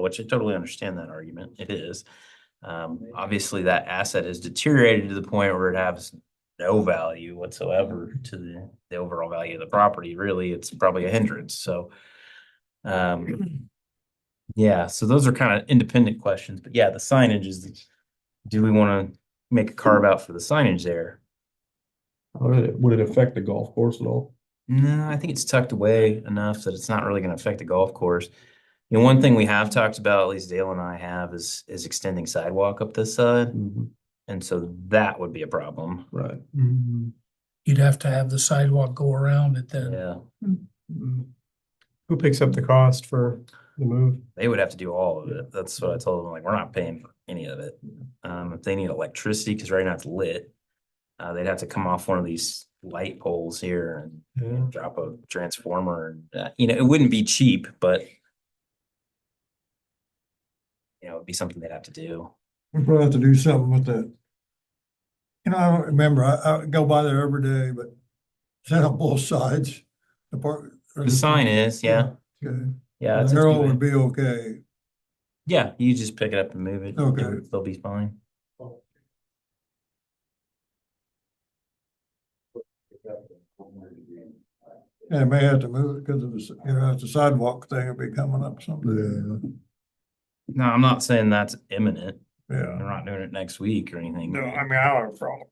which I totally understand that argument. It is. Um, obviously that asset has deteriorated to the point where it has no value whatsoever to the, the overall value of the property. Really, it's probably a hindrance, so. Um, yeah, so those are kind of independent questions, but yeah, the signage is, do we want to make a carve out for the signage there? Would it, would it affect the golf course at all? No, I think it's tucked away enough that it's not really going to affect the golf course. You know, one thing we have talked about, at least Dale and I have, is is extending sidewalk up this side, Mm-hmm. and so that would be a problem. Right. Mm-hmm. You'd have to have the sidewalk go around it then. Mm-hmm. Yeah, Who picks up the cost for the move? they would have to do all of it. That's what I told them. Like, we're not paying for any of it. Um, if they need electricity, because right now it's lit, uh, they'd have to come off one of these light poles here and Yeah. drop a transformer. and, uh, You know, it wouldn't be cheap, but you know, it'd be something they'd have to do. We probably have to do something with that. You know, I don't remember, I, I go by there every day, but is that on both sides? The park. or The sign is, yeah, Okay, yeah. it's the a arrow would two-way. be okay. Yeah, you just pick it up and move it. it Okay. would- They'll be fine. Yeah, may have to move it because of the, s- you know, the sidewalk thing will be coming up someday. No, I'm not saying that's imminent. They're Yeah. not doing it next week or anything. No, I mean, I don't have a problem.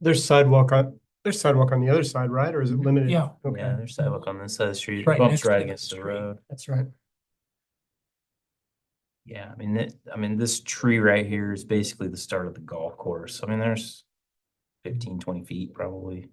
There's sidewalk on, there's sidewalk on the other side, right? Or is it limited? Yeah, Yeah, Okay. there's sidewalk on this side of the street. Right Bumps next to right the against the street. road. That's right. Yeah, I mean, it, I mean, this tree right here is basically the start of the golf course. I mean, there's 15, 20 feet probably.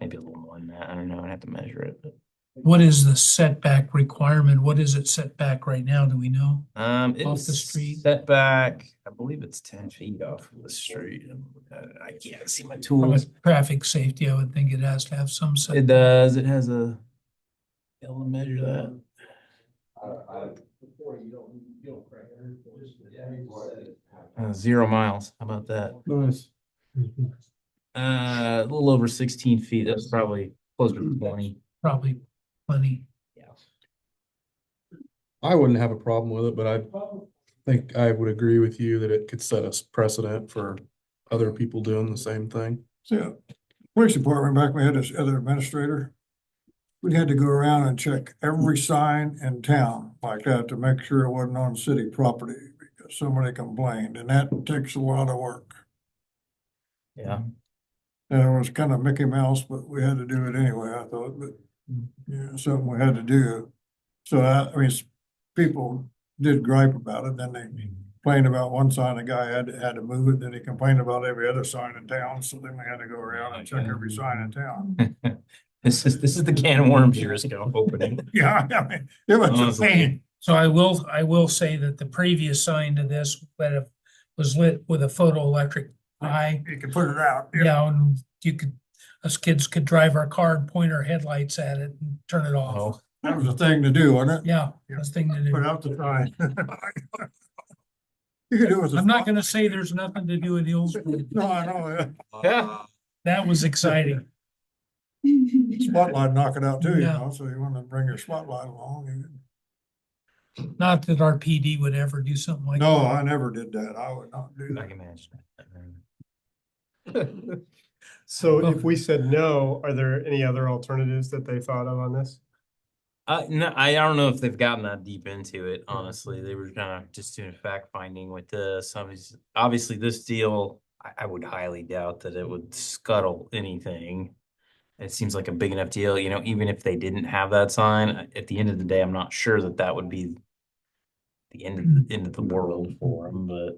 Maybe a little more than that. I don't know. I'd have to measure it, but. what is the setback requirement? What is it setback right now? Do we know? Um, Off the it's street? set back, I believe it's ten feet off of the street. Uh, I can't see my From a tools. traffic safety, I would think it has to have some It setback. does, it has a. Able to measure that. Uh, zero miles, how about that? Nice. Uh, a little over sixteen feet, that's probably closer to twenty. Probably plenty. I wouldn't have a problem with it, but I think I would agree with you that it could set us precedent for other people doing the same thing. So, uh, police department, back when we had this other administrator, we had to go around and check every sign in town like that to make sure it wasn't on city property because somebody complained, and that takes a lot of work. Yeah. And it was kind of Mickey Mouse, but we had to do it anyway, I thought, but, yeah, something we had to do. So I, I mean, s- people did gripe about it, then they complained about one sign, a guy had, had to move it, then he complained about every other sign in town, so then we had to go around and check every sign in town. This is, this is the can of worms you're just gonna open. Yeah, I mean, it was a Honestly. pain. So I will, I will say that the previous sign to this that it was lit with a photoelectric eye. You could put it out, yeah, Yeah, and you could, us kids could drive our car and point our headlights at it and turn it off. that was a thing to do, wasn't Oh. Yeah, that's the thing to it? Put do. out the sign. You could do it with. a I'm not phone. gonna say there's nothing to do in the old school. No, I know, Yeah. That was exciting. yeah. spotlight knock it out too, you Yeah. know, so you wanna bring your spotlight along, you Not that our PD would ever do something like. No, I never did that. I would not do I that. can imagine. So if we said no, are there any other alternatives that they thought of on this? Uh, no, I don't know if they've gotten that deep into it, honestly. They were kind of just doing fact finding with this. Obviously, obviously this deal, I, I would highly doubt that it would scuttle anything. It seems like a big enough deal, you know, even if they didn't have that sign, I- at the end of the day, I'm not sure that that would be the end of, the end of the world for them, but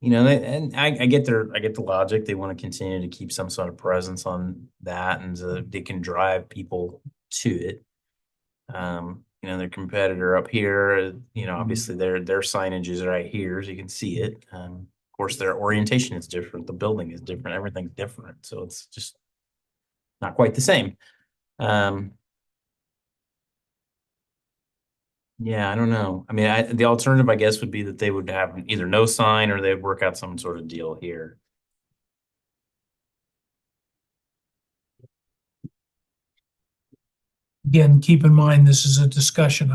you know, they, and I, I get their, I get the logic. They want to continue to keep some sort of presence on that and so that they can drive people to it. Um, you know, their competitor up here, you know, obviously their, their signage is right here, so you can see it. Um, of course, their orientation is different. The building is different. Everything's different. So it's just not quite the same. Um, yeah, I don't know. I mean, I, the alternative, I guess, would be that they would have either no sign or they'd work out some sort of deal here. Again, keep in mind, this is a discussion